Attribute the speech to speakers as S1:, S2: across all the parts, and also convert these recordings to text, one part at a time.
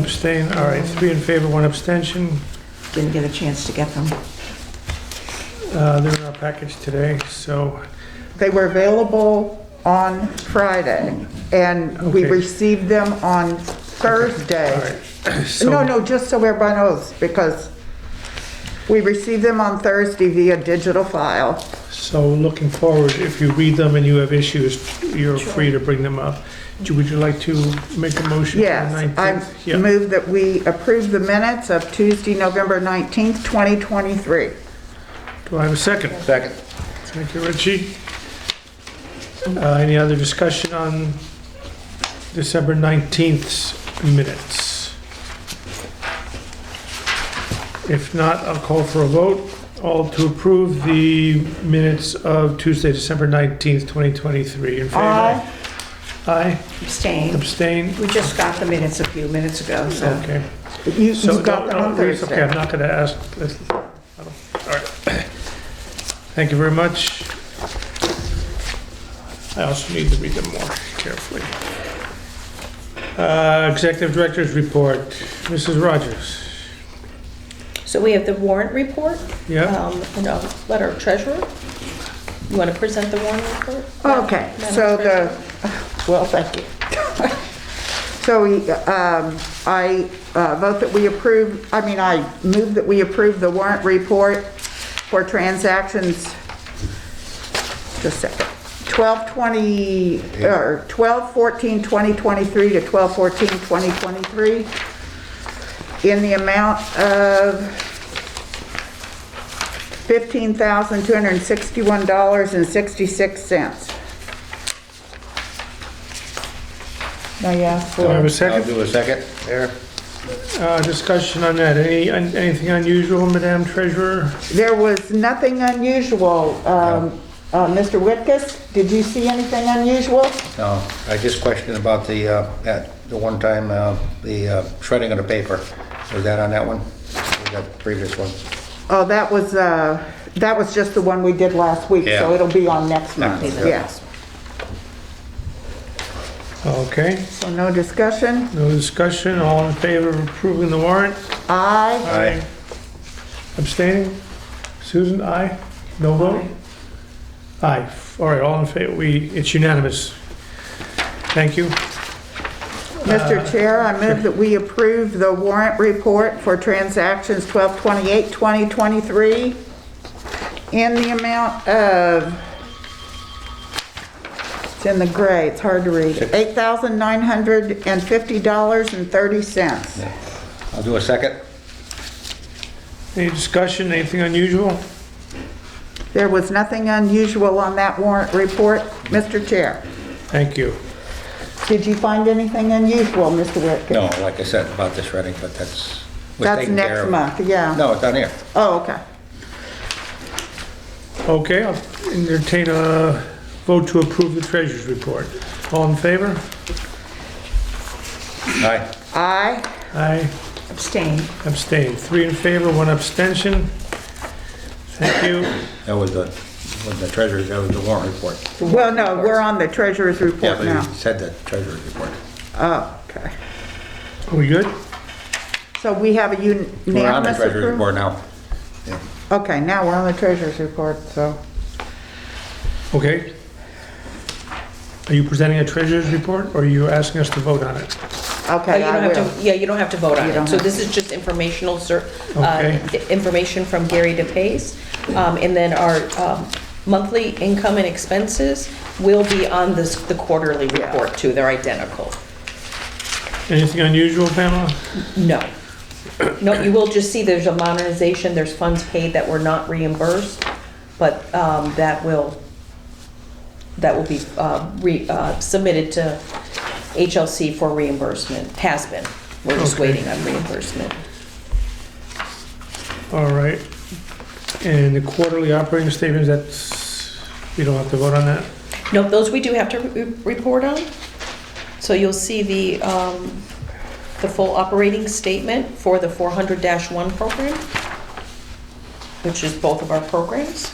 S1: Abstain, all right, three in favor, one abstention.
S2: Didn't get a chance to get them.
S1: Uh, They're in our package today, so,
S3: They were available on Friday, and we
S1: Okay.
S3: received them on
S1: all
S3: Thursday.
S1: right.
S3: No,
S1: So-
S3: no, just so everybody knows, because we received them on Thursday via digital file.
S1: So looking forward, if you read them and you have issues, you're free to bring them up. Do- Would you like to make a motion? for the
S3: Yes,
S1: 19th?
S3: I
S1: Yeah.
S3: move that we approve the minutes of Tuesday, November 19th, 2023.
S1: Do I have a second?
S4: Second.
S1: Thank you, Richie. Uh, Any other discussion on December 19th's minutes? If not, I'll call for a vote. All to approve the minutes of Tuesday, December 19th, 2023. In favor?
S3: Aye.
S1: Aye.
S2: Abstain.
S1: Abstain?
S2: We just got the minutes a few minutes ago, so.
S1: Okay.
S3: You
S1: So,
S3: you
S1: no,
S3: got them
S1: no,
S3: on
S1: it's Okay,
S3: Thursday.
S1: I'm not gonna ask, this- I don't- all right. Thank you very much. I also need to read them more carefully. Uh, Executive Director's Report, Mrs. Rogers.
S5: So we have the warrant report,
S1: Yeah,
S5: um, and a letter of treasurer. You want to present the warrant report?
S3: Okay,
S5: Madam
S3: so
S5: Treasurer?
S3: the, well, thank you. So we, um, I uh, vote that we approve, I mean, I move that we approve the warrant report for transactions, just a second, 12/20, or 12/14/2023 to 12/14/2023 in the amount of $15,261.66. Now you ask for.
S1: do I have a
S4: I'll
S1: second?
S4: do a second there.
S1: Uh, Discussion on that, any, an- anything unusual, Madam Treasurer?
S3: There was nothing unusual. Um, uh, Mr. Whitkus, did you see anything unusual?
S4: No, I just questioned about the, uh, that, the one time, uh, the uh, shredding of the paper. Was that on that one? Was that the previous one?
S3: Oh, that was, uh, that was just the one we did last week, so
S4: Yeah.
S3: it'll be on next month,
S4: month, yeah.
S3: yes.
S1: Okay,
S3: So no discussion?
S1: no discussion, all in favor of approving the warrant?
S3: Aye.
S4: Aye.
S1: Abstaining? Susan, aye? No vote? Aye. All right, all in favor, we, it's unanimous. Thank you.
S4: Uh,
S3: Mr. Chair, I move that we approve the warrant report for transactions 12/28/2023 in the amount of, it's in the gray, it's hard to read, $8,950.30.
S4: I'll do a second.
S1: Any discussion, anything unusual?
S3: There was nothing unusual on that warrant report, Mr. Chair.
S1: Thank you.
S3: Did you find anything unusual, Mr. Whitkin?
S4: No, like I said, about the shredding, but that's. was
S3: That's
S4: taken care
S3: next
S4: of.
S3: month, yeah.
S4: No, it's on here.
S3: Oh, okay.
S1: Okay, I'll entertain a vote to approve the treasurer's report. All in favor?
S4: Aye.
S3: Aye.
S1: Aye,
S2: Abstain.
S1: abstain. Three in favor, one abstention. Thank you.
S4: That was the, was the treasurer's, that was the warrant report.
S3: Well, no, we're on the treasurer's
S4: Yeah,
S3: report
S4: but you
S3: now.
S4: said the treasurer's report.
S3: Oh, okay.
S1: Are we good?
S3: So we have a
S4: We're on the
S3: unanimous
S4: treasurer's
S3: approval?
S4: report now. Yeah.
S3: Okay, now we're on the treasurer's report, so.
S1: Okay. Are you presenting a treasurer's report, or are you asking us to vote on it?
S5: Oh,
S3: Okay,
S5: you don't
S3: I
S5: have
S3: will.
S5: to. Yeah, you don't have to vote on
S3: You don't
S5: it. So
S3: have
S5: this is just informational, cer-
S1: Okay.
S5: uh, the information from Gary DePace. Um, And then our um, monthly income and expenses will be on this, the quarterly report too. They're identical.
S1: Anything unusual, Pamela?
S5: No. No, you will just see there's a monetization, there's funds paid that were not reimbursed, but um, that will, that will be uh, re- uh, submitted to HLC for reimbursement, has been. We're just
S1: Okay.
S5: waiting on reimbursement.
S1: All right. And the quarterly operating statements, that's, we don't have to vote on that?
S5: No, those we do have to re- report on. So you'll see the, um, the full operating statement for the 400-1 program, which is both of our programs.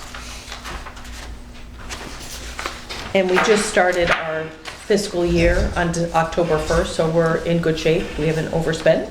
S5: And we just started our fiscal year on October 1st, so we're in good shape. We haven't overspent.